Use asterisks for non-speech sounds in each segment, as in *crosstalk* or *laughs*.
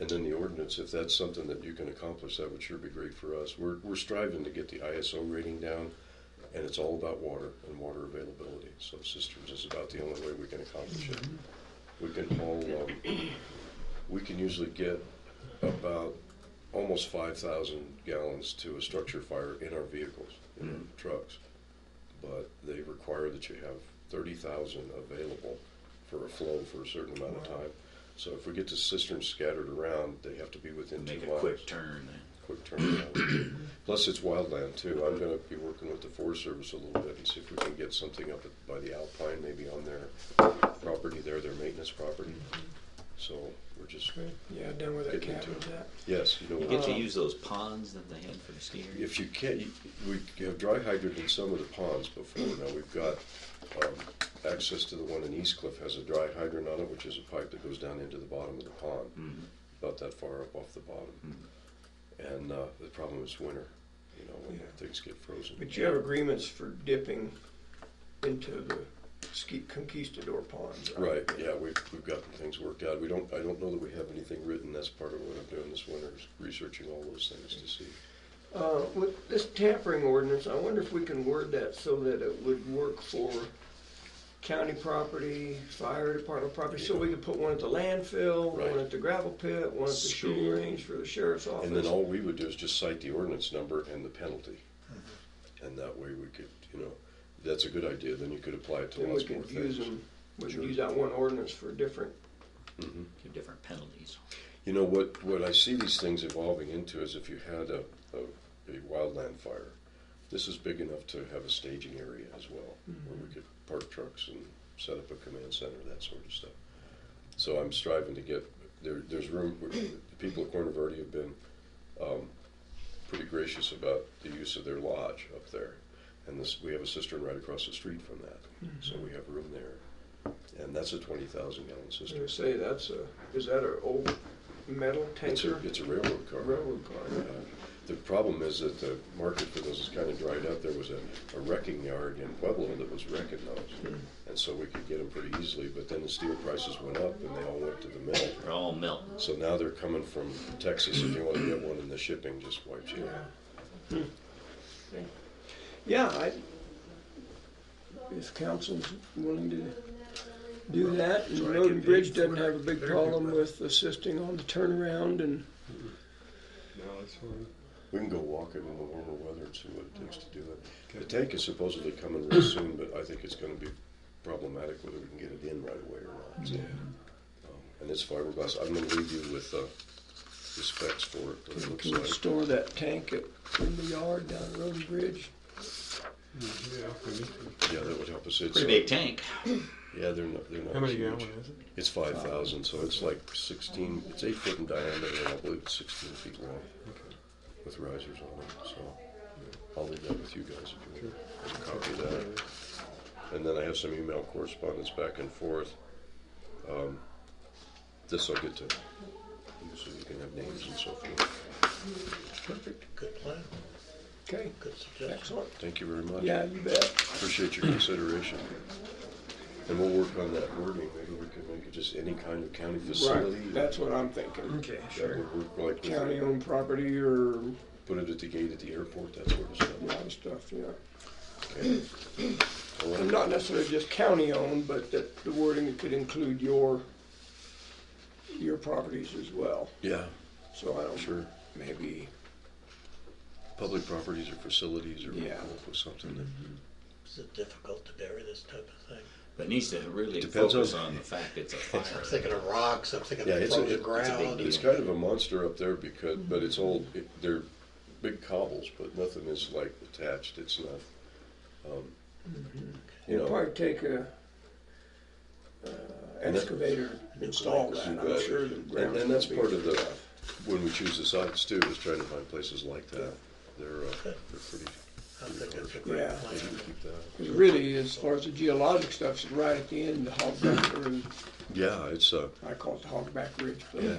And then the ordinance, if that's something that you can accomplish, that would sure be great for us. We're, we're striving to get the ISO rating down, and it's all about water and water availability. So systems is about the only way we can accomplish it. We can haul, um, we can usually get about almost five thousand gallons to a structure fire in our vehicles, in Mm-hmm. our trucks. But they require that you have thirty thousand available for a flow for a certain amount of time. So if we get the cisterns scattered around, they have to be within two Make a miles. quick turn then. Quick turnaround. Plus, it's wildland too. I'm gonna be working with the Forest Service a little bit and see if we can get something up at- by the Alpine, maybe on their property there, their maintenance property. So we're just, Yeah, done with that Getting cat into with that. yes, you know. You get to Uh, use those ponds that they had for the ski area. If you can't, you- we have dry hydrant in some of the ponds before. Now, we've got um, access to the one in East Cliff has a dry hydrant on it, which is a pipe that goes down into the bottom of the Mm-hmm. pond, about that far up off the bottom. And uh, the problem is winter, you know, when Yeah. things get frozen. But you have agreements for dipping into the ski conquistador ponds, right? Right, yeah, we've, we've gotten things worked out. We don't, I don't know that we have anything written. That's part of what I'm doing this winter, is researching all those things to see. Uh, with this tampering ordinance, I wonder if we can word that so that it would work for county property, fire department property, so we could put one at the landfill, Right. one at the gravel pit, one at the shooting School. range for the sheriff's office. And then all we would do is just cite the ordinance number and the penalty. And that way we could, you know, that's a good idea, then you could apply it to Then we lots more could use things. them, we could Sure. use that one ordinance for different, Two different penalties. You know, what, what I see these things evolving into is if you had a, a, a wildland fire, this is big enough to have a staging area as well, where we could park trucks and set up a command center, that sort of stuff. So I'm striving to get, there, there's room, the people at Corner Verde have been, um, pretty gracious about the use of their lodge up there. And this, we have a cistern right across the street from that, so we have room there. And that's a twenty thousand gallon I cistern. would say that's a, is that an old metal It's tanker? a, it's a railroad car. Railroad car. The problem is that the market for those is kind of dried up. There was a, a wrecking yard in Pueblo that was wrecking those. And so we could get them pretty easily, but then the steel prices went up and they all went to the mill. They're all melting. So now they're coming from Texas. If you want to get one in the shipping, just wipes you out. Yeah, I, if council's willing to do that, and Road and Bridge doesn't have a big problem with assisting on the turnaround and, We can go walking in the warmer weather and see what it takes to do that. The tank is supposedly coming real soon, but I think it's gonna be problematic whether we can get it in right away or not. Yeah. And it's fiberglass. I'm gonna leave you with, uh, the specs for it, what it looks can we like. store that tank at, in the yard down at Road and Bridge? Yeah, that would help us. It's, Pretty uh, big tank. yeah, they're not, they're not How many huge. gallon is it? It's five thousand, so it's like sixteen, it's eight foot in diameter, and I believe it's sixteen feet long with risers on it, so. I'll leave that with you guys if you want. There's a copy of that. And then I have some email correspondence back and forth. Um, This I'll get to, you so you can have names and so forth. Perfect. Good plan, Okay, good suggestion. excellent. Thank you very much. Yeah, you bet. Appreciate your consideration. And we'll work on that wording, maybe we can make it just any kind of county facility. Right, that's what I'm thinking. Okay, That would work like. with- County-owned property or Put it at the gate at the airport, that sort of a stuff. lot of stuff, yeah. All right. *clears throat* And not necessarily just county-owned, but that the wording could include your, your properties as well. Yeah, So I don't, sure. maybe, Public properties or facilities or we'll Yeah. come up with something that. Is it difficult to bury this type of thing? But it needs to really Depends focus on- on the fact *laughs* it's a fire. I'm thinking of rocks, I'm thinking Yeah, of it's a, frozen it- it's, a ground. big deal. it's kind of a monster up there because, but it's all, it, they're big cobbles, but nothing is like attached, it's not, um, you it'd know, Mm-hmm. probably take a uh, excavator to install that, I'm sure. the and, ground and that's would be- part of the, when we choose the sites too, is trying to find places like that. They're, uh, they're pretty, I think it's a Yeah. great plan. easy to keep that. 'Cause really, as far as the geologic stuff, it's right at the end, the hogback, or Yeah, it's, uh, I call it the hogback ridge, but, yeah,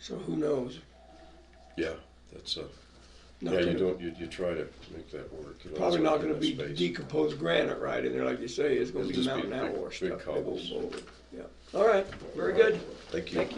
so who knows? yeah, that's, uh, Not yeah, you gonna- don't, you, you try to make that work. you know, Probably it's not gonna enough be space. decomposed granite right in there, like you say, it's gonna It'll be just be mountain big- outwash big stuff. They won't cobbles. mold it. Yeah, all right, very good. Thank you. Thank you.